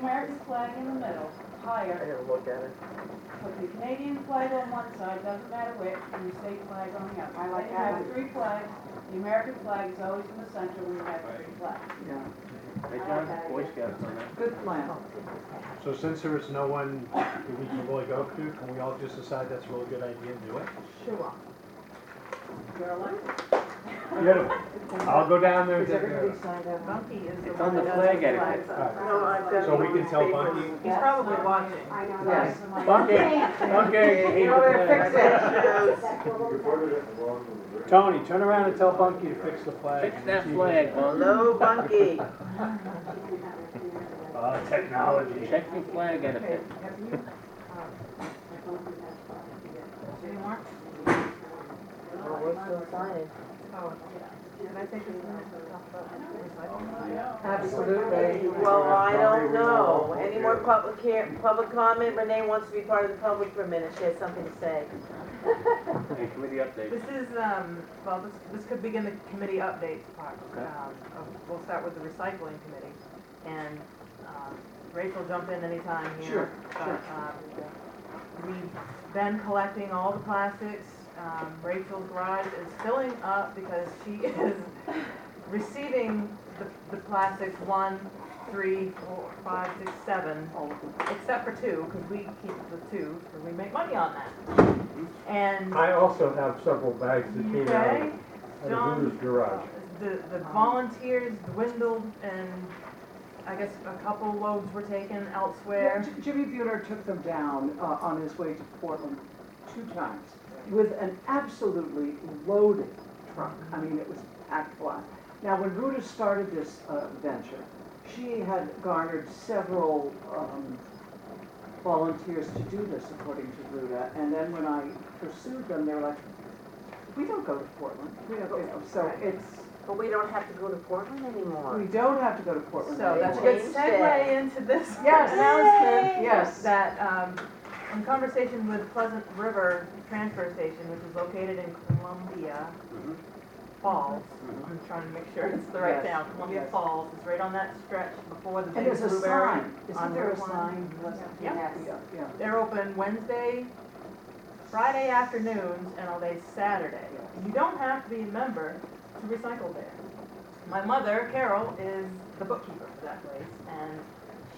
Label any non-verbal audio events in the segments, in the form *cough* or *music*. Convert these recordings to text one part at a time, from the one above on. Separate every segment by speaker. Speaker 1: American flag in the middle,
Speaker 2: I
Speaker 1: higher,
Speaker 2: gotta look at it.
Speaker 1: put the Canadian flag on one side, doesn't matter which, and the state flag on the other.
Speaker 3: I like
Speaker 1: Then you have
Speaker 3: that.
Speaker 1: three flags, the American flag is always in the center when you have three flags.
Speaker 2: Yeah,
Speaker 4: Right, John? Boy Scouts on that.
Speaker 2: good plan.
Speaker 5: So since there is no one that we can really go to, can we all just decide that's a really good idea and do it?
Speaker 3: Sure.
Speaker 1: You're elected.
Speaker 5: I'll go down there and
Speaker 2: Does
Speaker 5: take care of
Speaker 2: everybody
Speaker 5: it.
Speaker 2: sign that one?
Speaker 3: Monkey is
Speaker 4: It's on the flag etiquette.
Speaker 6: No, I've got.
Speaker 5: So we
Speaker 6: it
Speaker 5: can
Speaker 6: on
Speaker 5: tell
Speaker 6: paper.
Speaker 5: Bunky,
Speaker 6: He's probably watching.
Speaker 3: I know.
Speaker 2: Yes.
Speaker 3: right?
Speaker 5: Bunky, Bunky.
Speaker 2: You know where to
Speaker 6: Yes.
Speaker 3: That's what we're-
Speaker 5: Tony, turn around and tell Bunky to fix the flag.
Speaker 4: Fix that flag, Bun.
Speaker 6: Hello, Bunky.
Speaker 5: Uh, technology.
Speaker 4: Check your flag
Speaker 2: Okay,
Speaker 4: etiquette.
Speaker 2: have you, uh,
Speaker 1: Anymore?
Speaker 2: or what's the Oh, signing?
Speaker 3: And I think it's nice.
Speaker 2: Absolutely.
Speaker 6: Well, I don't know. Any more public care, public comment? Renee wants to be part of the public for a minute. She has something to say.
Speaker 4: Hey, committee update.
Speaker 7: This is, um, well, this, this could begin the committee updates part.
Speaker 4: Okay.
Speaker 7: Um, of- We'll start with the recycling committee, and um, Rachel, jump in anytime here. Sure, We've been collecting all the plastics. Um, Rachel's garage is filling up because she *laughs* is receiving the, the plastics, one, three, four, five, six, seven, except for two, because we keep the two, and we make money on that. And
Speaker 8: I also have several bags that came out
Speaker 7: Okay,
Speaker 8: of the
Speaker 7: John.
Speaker 8: Hooters garage.
Speaker 7: The, the volunteers dwindled and I guess a couple loads were taken
Speaker 2: Yeah,
Speaker 7: elsewhere.
Speaker 2: J- Jimmy Buhner took them down uh, on his way to Portland two times with an absolutely loaded truck. I mean, it was packed full. Now, when Ruta started this uh, venture, she had garnered several um, volunteers to do this, according to Ruta. And then when I pursued them, they were like, we don't go to Portland. We don't, you know, so it's,
Speaker 6: But we don't have to go to Portland
Speaker 2: we
Speaker 6: anymore.
Speaker 2: don't have to go to Portland
Speaker 7: So that's a
Speaker 2: anymore.
Speaker 7: good segue into this
Speaker 2: Yes.
Speaker 7: announcement.
Speaker 2: Yes.
Speaker 7: That, um, in conversation with Pleasant River Transfer Station, which is located in Columbia
Speaker 4: Mhm.
Speaker 7: Falls. I'm trying to make sure it's the right
Speaker 2: Mm-hmm. Yes,
Speaker 7: town. Columbia
Speaker 2: yes.
Speaker 7: Falls is right on that stretch before the
Speaker 2: And
Speaker 7: big
Speaker 2: there's a
Speaker 7: blueberry.
Speaker 2: sign.
Speaker 7: on
Speaker 2: Isn't there a
Speaker 7: Route one.
Speaker 2: sign?
Speaker 7: Yeah.
Speaker 2: Yeah, yeah.
Speaker 7: They're open Wednesday, Friday afternoons, and all day Saturday. You don't have to be a member to recycle there. My mother, Carol, is the bookkeeper for that place, and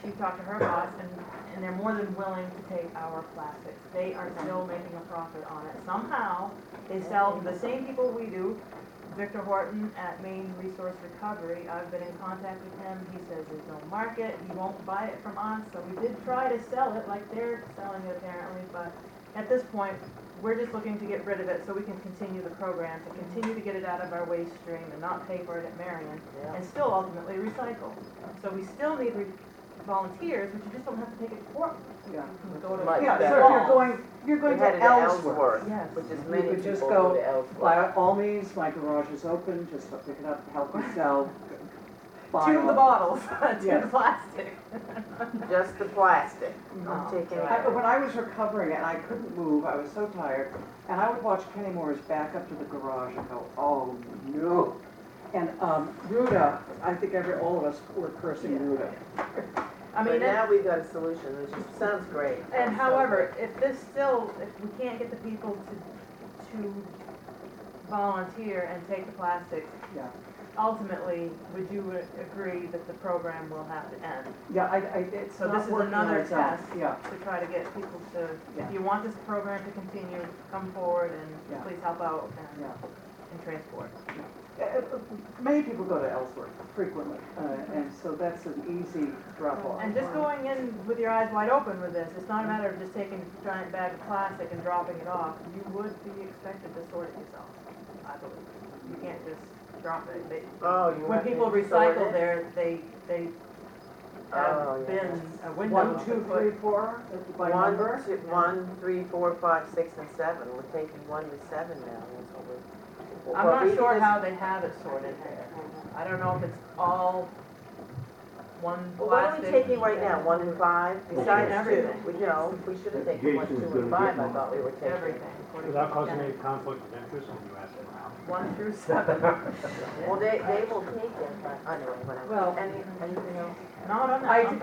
Speaker 7: she talked to her boss, and, and they're more than willing to take our plastics. They are still making a profit on it. Somehow, they sell to the same people we do. Victor Horton at Maine Resource Recovery, I've been in contact with him, he says there's no market, he won't buy it from us, so we did try to sell it like they're selling it apparently, but at this point, we're just looking to get rid of it so we can continue the program, to continue to get it out of our waste stream and not pay for it at Marion, and still ultimately recycle. So we still need re- volunteers, but you just don't have to take it to Portland,
Speaker 2: Yeah.
Speaker 7: you can go to.
Speaker 6: Much
Speaker 2: Yeah, so if
Speaker 6: better.
Speaker 2: you're going, you're going
Speaker 6: We're headed
Speaker 2: to Ellsworth.
Speaker 7: Yes.
Speaker 6: Which is
Speaker 2: You
Speaker 6: many
Speaker 2: could
Speaker 6: people
Speaker 2: just
Speaker 6: go
Speaker 2: go
Speaker 6: to Ellsworth.
Speaker 2: By all means, my garage is open, just pick it up, help yourself. *laughs* Buy
Speaker 7: Two of the
Speaker 2: all-
Speaker 7: bottles, *laughs* two of the
Speaker 2: Yes.
Speaker 7: plastic.
Speaker 6: Just
Speaker 7: *laughs*
Speaker 6: the plastic. Oh,
Speaker 2: Mhm.
Speaker 6: Don't take any
Speaker 2: I-
Speaker 6: of it.
Speaker 2: When I was recovering and I couldn't move, I was so tired, and I would watch Kenny Moore's back up to the garage and go, oh, no. And um, Ruda, I think every, all of us were cursing Ruda.
Speaker 7: I mean,
Speaker 6: But
Speaker 7: it-
Speaker 6: now we've got a solution, which is- sounds great.
Speaker 7: And
Speaker 6: Sounds
Speaker 7: however, if this still, if we can't get the people to, to volunteer and take the plastics,
Speaker 2: Yeah.
Speaker 7: ultimately, would you agree that the program will have to end?
Speaker 2: Yeah, I, I, it's
Speaker 7: So this
Speaker 2: not
Speaker 7: is
Speaker 2: working on
Speaker 7: another
Speaker 2: its own.
Speaker 7: test.
Speaker 2: Yeah,
Speaker 7: To try to get people to,
Speaker 2: Yeah.
Speaker 7: if you want this program to continue, come forward and
Speaker 2: Yeah.
Speaker 7: please help out and,
Speaker 2: yeah.
Speaker 7: and transport.
Speaker 2: Uh, uh, Many people go to Ellsworth frequently, uh, and so that's an easy drop off.
Speaker 7: And just going in with your eyes wide open with this, it's not a matter of just taking a giant bag of plastic and dropping it off. You would be expected to sort it yourself, I believe. You can't just drop it. They-
Speaker 6: Oh, you
Speaker 7: When
Speaker 6: want me
Speaker 7: people
Speaker 6: to sort
Speaker 7: recycle
Speaker 6: it?
Speaker 7: their, they, they
Speaker 6: Oh,
Speaker 7: have
Speaker 6: yeah,
Speaker 7: bins, a window
Speaker 2: One,
Speaker 7: to
Speaker 2: two,
Speaker 7: put.
Speaker 2: three, four, uh, by
Speaker 6: One,
Speaker 2: number?
Speaker 6: two- one, three, four, five, six, and seven. We're taking one to seven now, that's what we're.
Speaker 7: I'm
Speaker 6: what we
Speaker 7: not sure
Speaker 6: just-
Speaker 7: how they have it sorted there. I don't know if it's all one
Speaker 6: Well, what are we
Speaker 7: plastic.
Speaker 6: taking right now, one and five? Besides two,
Speaker 7: Everything.
Speaker 6: we know, we should have taken one, two, and five, I thought we were taking.
Speaker 7: Everything. according to
Speaker 5: Without causing
Speaker 7: Janet.
Speaker 5: any conflict of interest when you ask around.
Speaker 7: One through seven.
Speaker 8: *laughs*
Speaker 6: Well, they, they will take it, but anyway, whatever.
Speaker 2: Well-
Speaker 6: Any, anything else?
Speaker 7: Not on that.
Speaker 2: I-
Speaker 7: I'm